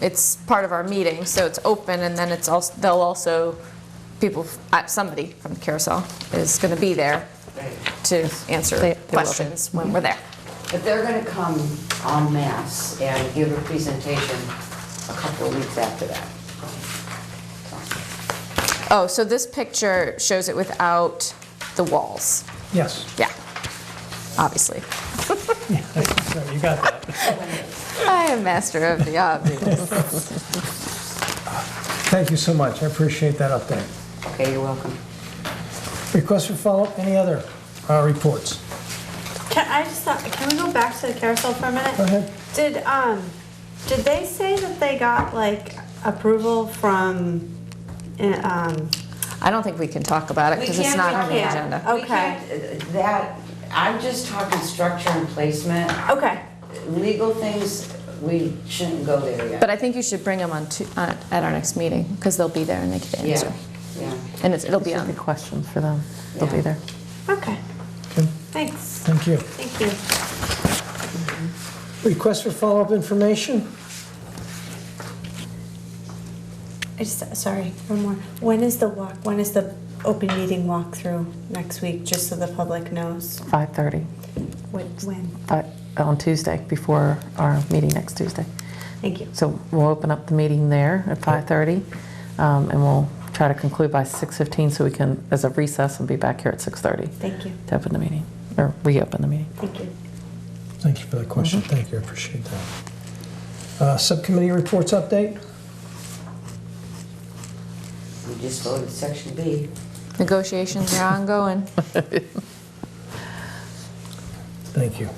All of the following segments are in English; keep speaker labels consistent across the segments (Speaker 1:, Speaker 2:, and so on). Speaker 1: it's part of our meeting, so it's open, and then it's also, they'll also, people, uh, somebody from the carousel is going to be there to
Speaker 2: They-
Speaker 1: answer
Speaker 2: they will be.
Speaker 1: questions when we're there.
Speaker 3: But they're gonna come en masse and give a presentation a couple of weeks after that.
Speaker 1: Oh, so this picture shows it without the walls.
Speaker 4: Yes,
Speaker 1: Yeah, obviously.
Speaker 4: so you got that.
Speaker 1: I am master of the obvious.
Speaker 4: Thank you so much, I appreciate that update.
Speaker 3: Okay, you're welcome.
Speaker 4: Request for follow-up, any other uh, reports?
Speaker 5: Can, I just thought, can we go back to the carousel for a minute?
Speaker 4: Go ahead.
Speaker 5: Did, um, did they say that they got like approval from, uh, um,
Speaker 1: I don't think we can talk about it
Speaker 3: We
Speaker 1: because it's
Speaker 3: can't-
Speaker 1: not
Speaker 3: we
Speaker 1: on the
Speaker 5: can't.
Speaker 1: agenda.
Speaker 3: We
Speaker 5: Okay.
Speaker 3: can't, uh, That, I'm just talking structure and placement.
Speaker 5: okay,
Speaker 3: Legal things, we shouldn't go there yet.
Speaker 1: But I think you should bring them on, Tu- uh, at our next meeting because they'll be there and they can
Speaker 3: Yeah,
Speaker 1: answer.
Speaker 3: yeah.
Speaker 1: And it's, it'll be
Speaker 2: Should be
Speaker 1: on.
Speaker 2: questions for them. They'll be
Speaker 3: Yeah.
Speaker 2: there.
Speaker 5: okay,
Speaker 4: Okay,
Speaker 5: thanks,
Speaker 4: Thank you.
Speaker 5: thank you.
Speaker 4: Request for follow-up information?
Speaker 5: I just, sorry, one more. When is the walk, when is the open meeting walkthrough next week, just so the public knows?
Speaker 2: 5:30,
Speaker 5: When, when?
Speaker 2: but on Tuesday, before our meeting next Tuesday.
Speaker 5: Thank you.
Speaker 2: So we'll open up the meeting there at 5:30, um, and we'll try to conclude by 6:15 so we can, as a recess, and be back here at 6:30
Speaker 5: Thank you,
Speaker 2: to open the meeting, or reopen the meeting.
Speaker 5: thank you.
Speaker 4: Thank you for that question, thank you, I appreciate that. Uh, Subcommittee reports update?
Speaker 3: We just voted section B.
Speaker 1: Negotiations are ongoing.
Speaker 4: Thank you.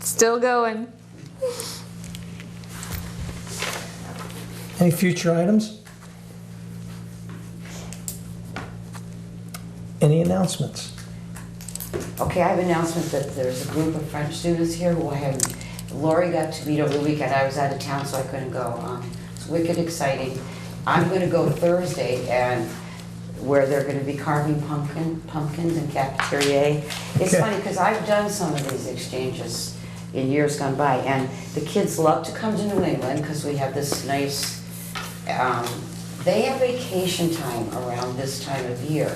Speaker 1: Still going.
Speaker 4: Any future items? Any announcements?
Speaker 3: Okay, I have an announcement that there's a group of French students here who I haven't, Lori got to meet over the weekend, I was out of town, so I couldn't go. Um, It's wicked exciting. I'm gonna go Thursday and where they're gonna be carving pumpkin, pumpkins in cafeteria. It's
Speaker 4: Okay.
Speaker 3: funny, because I've done some of these exchanges in years gone by, and the kids love to come to New England, because we have this nice, um, they have vacation time around this time of year.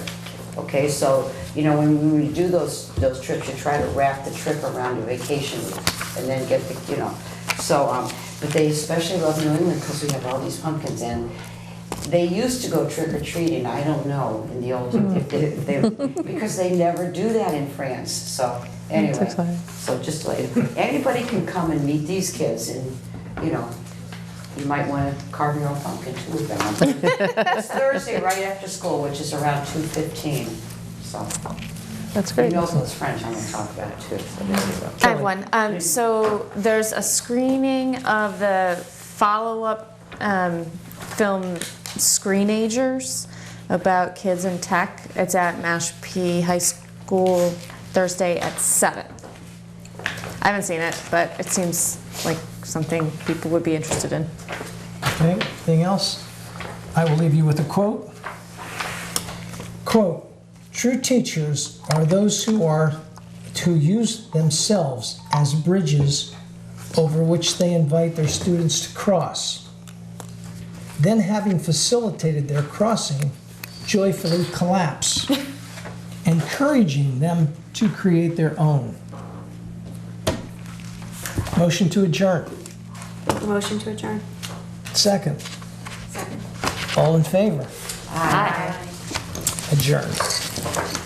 Speaker 3: Okay, so, you know, when we do those, those trips, you try to wrap the trip around your vacation week, and then get the, you know, so, um, but they especially love New England, because we have all these pumpkins, and they used to go trick or treating, I don't know, in the old, if they, if they- because they never do that in France, so, anyway.
Speaker 2: exciting.
Speaker 3: So just like, anybody can come and meet these kids and, you know, you might wanna carve your own pumpkin too with them. It's Thursday, right after school, which is around two fifteen, so.
Speaker 2: That's
Speaker 3: You
Speaker 2: great.
Speaker 3: know, it's French, I'm gonna talk about it too, so there you go.
Speaker 1: I have one. Um, so there's a screening of the follow-up um, film Screenagers about kids in tech. It's at Mashpee High School Thursday at seven. I haven't seen it, but it seems like something people would be interested in.
Speaker 4: Okay, anything else? I will leave you with a quote. Quote, "True teachers are those who are who use themselves as bridges over which they invite their students to cross. Then having facilitated their crossing, joyfully collapse, encouraging them to create their own." Motion to adjourn.
Speaker 5: Motion to adjourn.
Speaker 4: Second. All in favor?
Speaker 1: Hi.
Speaker 4: Adjourned.